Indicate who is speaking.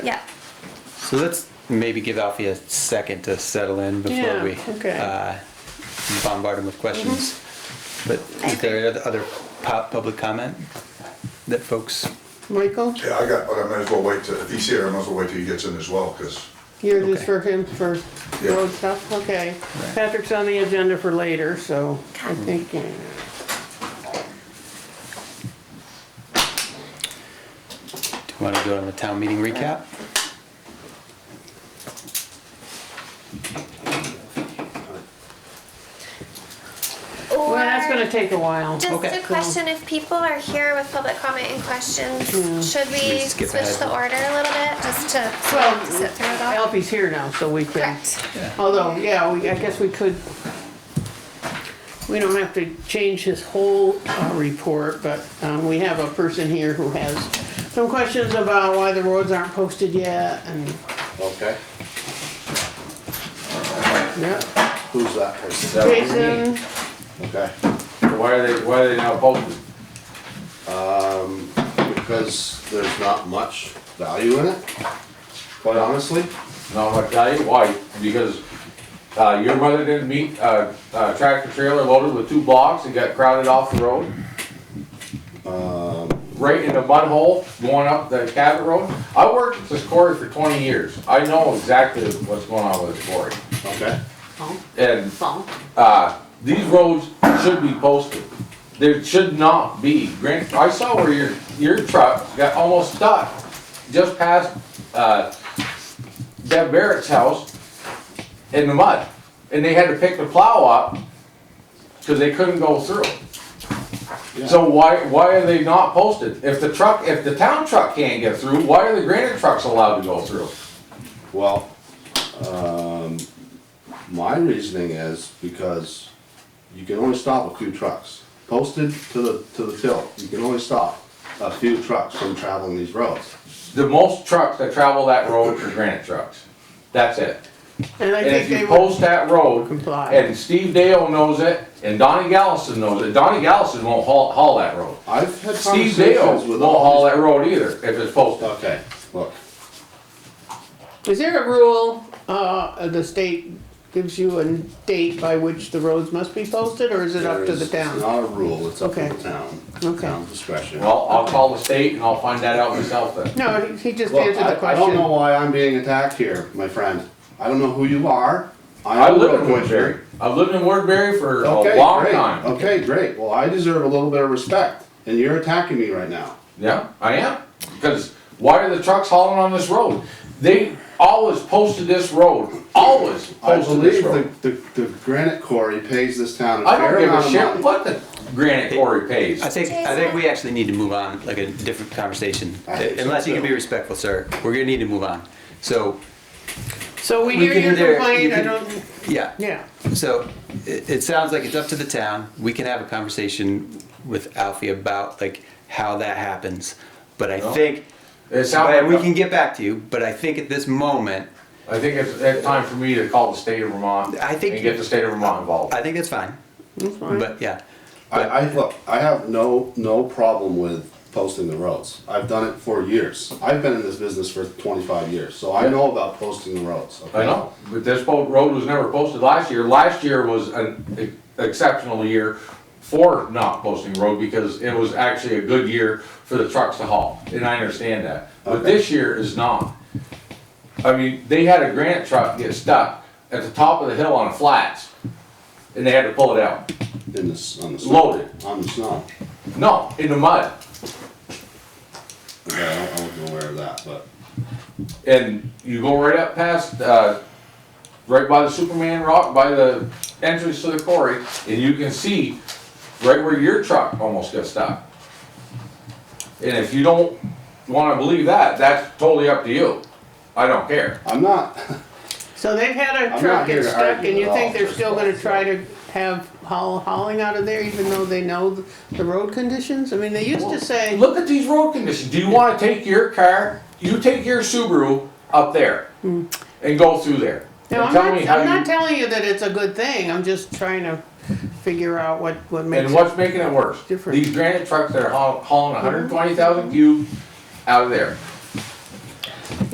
Speaker 1: Yeah.
Speaker 2: So let's maybe give Alfie a second to settle in before
Speaker 3: Yeah,
Speaker 2: we
Speaker 3: okay.
Speaker 2: uh, bombard him with questions.
Speaker 3: Mm-hmm.
Speaker 2: But is there oth- other pub- public comment that folks,
Speaker 3: Michael,
Speaker 4: Yeah, I got, but I might as well wait till, if he's here, I might as well wait till he gets in as well, because,
Speaker 3: you're just
Speaker 2: Okay.
Speaker 3: for him for
Speaker 4: Yeah.
Speaker 3: road stuff, okay. Patrick's on the agenda for later, so I think, uh,
Speaker 2: do you want to do on the town meeting
Speaker 5: Uh,
Speaker 2: recap?
Speaker 3: well, that's
Speaker 1: Or-
Speaker 3: gonna take a while.
Speaker 1: Just
Speaker 2: Okay,
Speaker 1: a question, if people are here with public comment and questions, should we
Speaker 2: we skip
Speaker 1: switch
Speaker 2: ahead?
Speaker 1: the order a little bit, just to
Speaker 3: Well,
Speaker 1: sit through it all?
Speaker 3: Alfie's here now, so we can,
Speaker 1: Correct,
Speaker 3: although, yeah, we, I guess we could, we don't have to change his whole, uh, report, but, um, we have a person here who has some questions about why the roads aren't posted yet and,
Speaker 5: Okay,
Speaker 3: yeah.
Speaker 5: who's that person? That would be me.
Speaker 3: Jason,
Speaker 5: Okay,
Speaker 6: Why are they, why are they now bolted?
Speaker 5: because there's not much value in it, quite honestly.
Speaker 6: No, I'll tell you why, because, uh, your mother didn't meet, uh, uh, tractor trailer loaded with two blocks and got crowded off the road? Right in the mud hole going up the Cabot Road? I worked with this quarry for twenty years, I know exactly what's going on with this quarry.
Speaker 5: Okay,
Speaker 3: oh,
Speaker 6: And
Speaker 3: oh,
Speaker 6: uh, these roads should be posted. There should not be, Grant, I saw where your, your truck got almost stuck just past, uh, Deb Barrett's house in the mud. And they had to pick the plow up because they couldn't go through. So why, why are they not posted? If the truck, if the town truck can't get through, why are the granite trucks allowed to go through?
Speaker 5: well, um, my reasoning is because you can only stop a few trucks. Posted to the, to the till, you can only stop a few trucks from traveling these roads.
Speaker 6: The most trucks that travel that road are granite trucks. That's it.
Speaker 3: and I
Speaker 6: And
Speaker 3: think
Speaker 6: if
Speaker 3: they
Speaker 6: you
Speaker 3: will
Speaker 6: post that road,
Speaker 3: comply.
Speaker 6: and Steve Dale knows it, and Donnie Gallison knows it, Donnie Gallison won't haul, haul that road.
Speaker 5: I've had
Speaker 6: Steve Dale
Speaker 5: conversations
Speaker 6: won't
Speaker 5: with
Speaker 6: haul
Speaker 5: all
Speaker 6: that road either, if it's
Speaker 5: these.
Speaker 6: posted.
Speaker 5: Okay, look,
Speaker 3: Is there a rule, uh, the state gives you a date by which the roads must be posted, or is it up to the
Speaker 5: There's-
Speaker 3: town?
Speaker 5: It's not a rule, it's up to
Speaker 3: Okay.
Speaker 5: the town.
Speaker 3: Okay.
Speaker 5: Town discretion.
Speaker 6: Well, I'll call the state and I'll find that out myself then.
Speaker 3: No, he- he just
Speaker 5: Look,
Speaker 3: answered the
Speaker 5: I- I don't know
Speaker 3: question.
Speaker 5: why I'm being attacked here, my friend. I don't know who you are.
Speaker 6: I
Speaker 5: am a
Speaker 6: live in
Speaker 5: road commissioner.
Speaker 6: Woodbury, I've lived in Woodbury for a
Speaker 5: Okay,
Speaker 6: long
Speaker 5: great.
Speaker 6: time.
Speaker 5: Okay, great. Well, I deserve a little bit of respect, and you're attacking me right now.
Speaker 6: Yeah, I am, because why are the trucks hauling on this road? They always posted this road, always
Speaker 5: I
Speaker 6: posted this
Speaker 5: believe
Speaker 6: road.
Speaker 5: the, the, the granite quarry pays this town a
Speaker 6: I don't
Speaker 5: fair
Speaker 6: give a
Speaker 5: amount of
Speaker 6: shit
Speaker 5: money.
Speaker 6: what the granite quarry pays.
Speaker 2: I think, I think we actually need to move on, like a different conversation.
Speaker 5: I think so,
Speaker 2: Unless you can be
Speaker 5: too.
Speaker 2: respectful, sir, we're gonna need to move on. So,
Speaker 3: So we
Speaker 2: we
Speaker 3: hear
Speaker 2: can
Speaker 3: your
Speaker 2: either-
Speaker 3: complaint,
Speaker 2: you
Speaker 3: I
Speaker 2: can-
Speaker 3: don't,
Speaker 2: yeah.
Speaker 3: yeah.
Speaker 2: So it, it sounds like it's up to the town. We can have a conversation with Alfie about like how that happens. But I
Speaker 6: Well,
Speaker 2: think
Speaker 6: It sounds
Speaker 2: but
Speaker 6: like
Speaker 2: we
Speaker 6: a-
Speaker 2: can get back to you. But I think at this moment,
Speaker 6: I think it's, it's time for me to call the state of Vermont.
Speaker 2: I think-
Speaker 6: And get the state of Vermont involved.
Speaker 2: I think that's fine. But yeah,
Speaker 5: I, I, look, I have no, no problem with posting the roads. I've done it for years. I've been in this business for twenty-five years, so I know about posting the roads, okay?
Speaker 6: I know, but this boat road was never posted last year. Last year was an exceptional year for not posting road because it was actually a good year for the trucks to haul, and I understand that. But
Speaker 5: Okay.
Speaker 6: this year is not. I mean, they had a granite truck get stuck at the top of the hill on flats, and they had to pull it out,
Speaker 5: In this, on the snow.
Speaker 6: loaded.
Speaker 5: On the snow.
Speaker 6: No, in the mud.
Speaker 5: Okay, I don't- I wasn't aware of that, but.
Speaker 6: and you go right up past, uh, right by the Superman rock, by the entrance to the quarry, and you can see right where your truck almost got stuck. And if you don't wanna believe that, that's totally up to you. I don't care.
Speaker 5: I'm not.
Speaker 3: So they've had a
Speaker 5: not
Speaker 3: truck
Speaker 5: here
Speaker 3: get
Speaker 5: to
Speaker 3: stuck,
Speaker 5: argue
Speaker 3: and you
Speaker 5: at
Speaker 3: think
Speaker 5: all,
Speaker 3: they're
Speaker 5: first
Speaker 3: still
Speaker 5: of all,
Speaker 3: gonna
Speaker 5: so.
Speaker 3: try to have haul, hauling out of there even though they know th- the road conditions? I mean, they used to say,
Speaker 6: Look at these road conditions. Do you wanna take your car, you take your Subaru up there and go through there?
Speaker 3: Hmm. no,
Speaker 6: And
Speaker 3: I'm
Speaker 6: tell
Speaker 3: not,
Speaker 6: me how
Speaker 3: I'm
Speaker 6: you-
Speaker 3: not telling you that it's a good thing, I'm just trying to figure out what, what makes
Speaker 6: And
Speaker 3: it.
Speaker 6: what's making it worse?
Speaker 3: Different.
Speaker 6: These granite trucks that are haul- hauling hundred and twenty thousand cube out of there.